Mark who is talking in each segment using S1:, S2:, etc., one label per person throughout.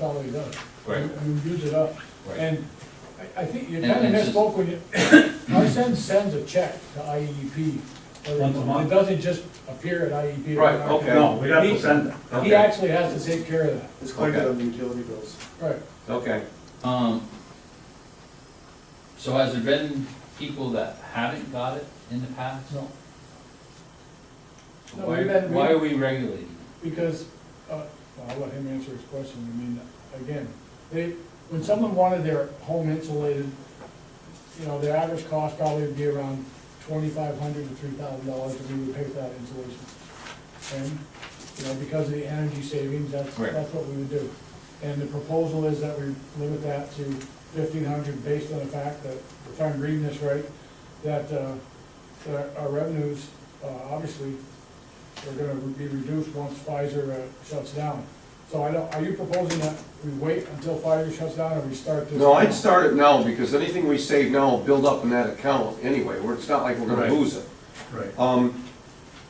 S1: already done.
S2: Right.
S1: You you use it up.
S2: Right.
S1: And I, I think you
S2: And-
S1: kind
S2: and
S1: of
S2: it's just-
S1: misspoke when you, Narsen sends a check to IEP. every
S3: Once a
S1: month.
S3: month?
S1: It doesn't just appear at IEP.
S2: Right,
S1: Right.
S2: okay.
S3: No, we have to send it.
S1: He
S2: Okay,
S1: actually has to take care of that,
S4: It's collected on the utility bills.
S1: right.
S2: okay.
S5: Um, so has there been people that haven't got it in the past?
S1: No, No,
S5: Why,
S1: we've had-
S5: why are we regulating?
S1: because, uh, well, I'll let him answer his question, I mean, again, they, when someone wanted their home insulated, you know, their average cost probably would be around twenty-five hundred to three thousand dollars if we would pay for that insulation. And, you know, because of the energy savings, that's,
S2: Right.
S1: that's what we would do. And the proposal is that we limit that to fifteen hundred based on the fact that, if I'm reading this right, that, uh, that our revenues, uh, obviously, are gonna be reduced once Pfizer uh, shuts down. So I don't, are you proposing that we wait until Pfizer shuts down or we start this?
S6: No, I'd start it now, because anything we save now will build up in that account anyway, where it's not like we're
S3: Right.
S6: gonna lose it.
S3: Right.
S6: Um,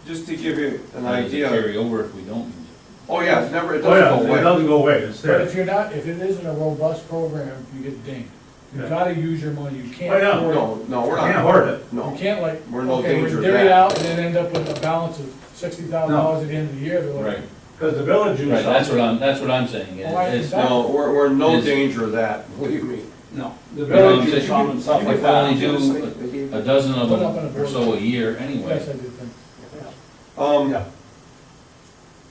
S6: just to give you an
S5: Or does it
S6: idea,
S5: Carry over if we don't use it?
S6: oh yeah, it never, it
S3: Oh,
S6: doesn't
S3: yeah,
S6: go
S3: it
S6: away.
S3: doesn't go away, it's
S1: But
S3: there.
S1: if you're not, if it isn't a robust program, you get dinged. You
S3: Yeah.
S1: gotta use your money, you can't.
S3: Oh, yeah.
S1: afford-
S6: No, no, we're
S3: Can't
S6: not,
S3: hoard it.
S1: You
S6: no.
S1: can't like,
S6: We're in no
S1: okay,
S6: danger
S1: we
S6: of
S1: dare it
S6: that.
S1: out and then end up with a balance of sixty thousand dollars at the end of the year, they're like,
S2: Right,
S3: Because the village used
S5: Right, that's what
S3: something.
S5: I'm, that's what I'm saying,
S1: Why
S5: is,
S1: is
S5: is,
S1: that-
S6: No, we're, we're in no
S5: Yes.
S6: danger of that, believe me.
S3: No, the
S5: You know what I'm
S3: village used
S5: saying?
S3: something, stuff
S5: You
S3: like
S5: can only
S3: that.
S5: do a dozen of
S1: Put up on a
S5: them
S1: board.
S5: or so a year anyway.
S1: yes, I did think.
S6: Um,
S3: Yeah.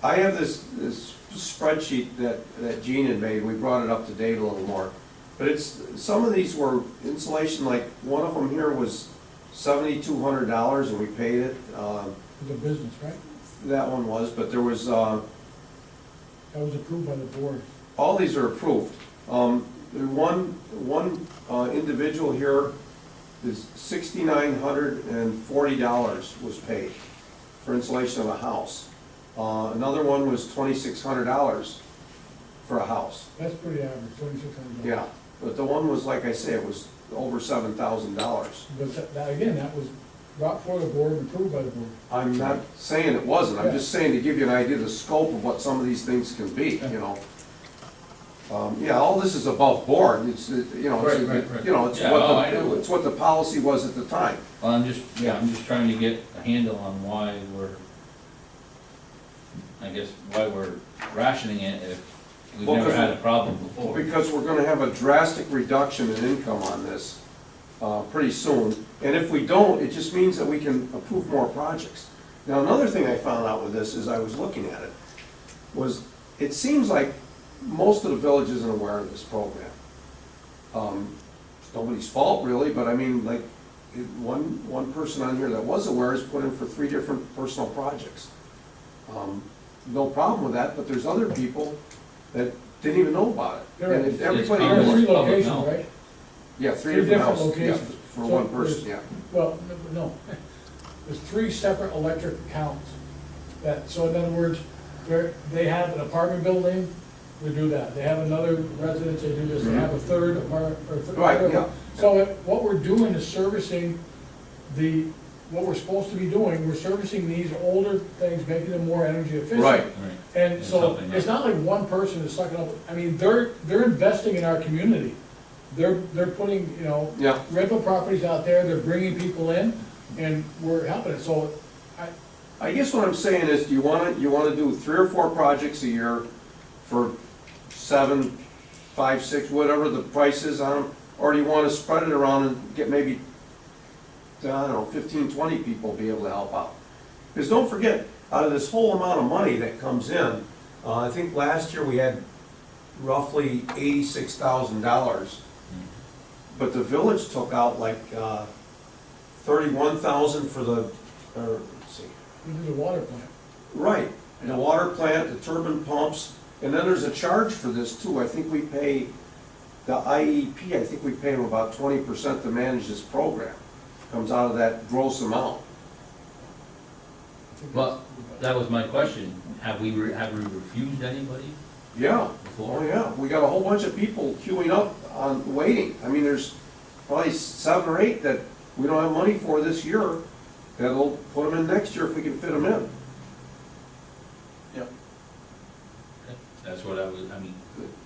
S6: I have this, this spreadsheet that, that Gene had made, we brought it up to date a little more. But it's, some of these were insulation, like, one of them here was seventy-two hundred dollars and we paid it. Um,
S1: It's a business, right?
S6: That one was, but there was, uh,
S1: That was approved by the board.
S6: all these are approved. Um, there one, one uh, individual here is sixty-nine hundred and forty dollars was paid for insulation of a house. Uh, another one was twenty-six hundred dollars for a house,
S1: That's pretty average, twenty-six hundred dollars.
S6: yeah. But the one was, like I say, it was over seven thousand dollars.
S1: But that- that, again, that was brought before the board, and approved by the board.
S6: I'm not saying it wasn't, I'm just saying to give you an idea of the scope of what some of these things can be, you know? Um, yeah, all this is above board, it's, uh, you know,
S2: Right, right, right.
S6: it's, you know, it's
S5: Yeah, oh, I
S6: what
S5: know.
S6: the, it's what the policy was at the time.
S5: Well, I'm just, yeah, I'm just trying to get a handle on why we're, I guess, why we're rationing it if we've
S6: Well,
S5: never
S6: 'cause-
S5: had a problem before.
S6: Because we're gonna have a drastic reduction in income on this, uh, pretty soon. And if we don't, it just means that we can approve more projects. Now, another thing I found out with this, as I was looking at it, was it seems like most of the village isn't aware of this program. Um, It's nobody's fault really, but I mean, like, it- one, one person on here that was aware is put in for three different personal projects. Um, No problem with that, but there's other people that didn't even know about it.
S1: There-
S6: And if
S1: It's
S6: everybody,
S1: There were
S5: common.
S6: knew
S1: three
S6: it-
S5: public
S1: locations,
S5: knowledge.
S1: right?
S6: yeah, three
S1: Three
S6: different
S1: different
S6: houses, yeah,
S1: locations.
S6: for
S1: So
S6: one person, yeah.
S1: Well, no- no, there's three separate electric accounts. That, so in other words, they're, they have an apartment building, they do that. They have another residence, they do this. They have a third apartment, or. th-
S6: Right,
S1: third-
S6: yeah.
S1: So it- what we're doing is servicing the, what we're supposed to be doing, we're servicing these older things, making them more energy efficient.
S6: Right.
S5: Right.
S1: And
S5: It's
S1: so,
S5: helping,
S1: it's
S5: right.
S1: not like one person is sucking up, I mean, they're, they're investing in our community. They're, they're putting, you know,
S6: Yeah.
S1: rental properties out there, they're bringing people in, and we're helping it, so I,
S6: I guess what I'm saying is, do you wanna, you wanna do three or four projects a year for seven, five, six, whatever the price is on them? Or do you wanna spread it around and get maybe, I don't know, fifteen, twenty people be able to help out? Because don't forget, out of this whole amount of money that comes in, uh, I think last year we had roughly eighty-six thousand dollars. But the village took out like, uh, thirty-one thousand for the, or, let's see,
S1: we did a water plant.
S6: Right, the water plant, the turbine pumps, and then there's a charge for this too. I think we pay, the IEP, I think we pay them about twenty percent to manage this program. Comes out of that gross amount.
S1: I think
S5: Well,
S1: that's-
S5: that was my question, have we, re- have we refused anybody
S6: Yeah, oh
S5: before?
S6: yeah, we got a whole bunch of people queuing up on, waiting. I mean, there's probably seven or eight that we don't have money for this year. That'll put them in next year if we can fit them in.
S5: That's what I was, I mean,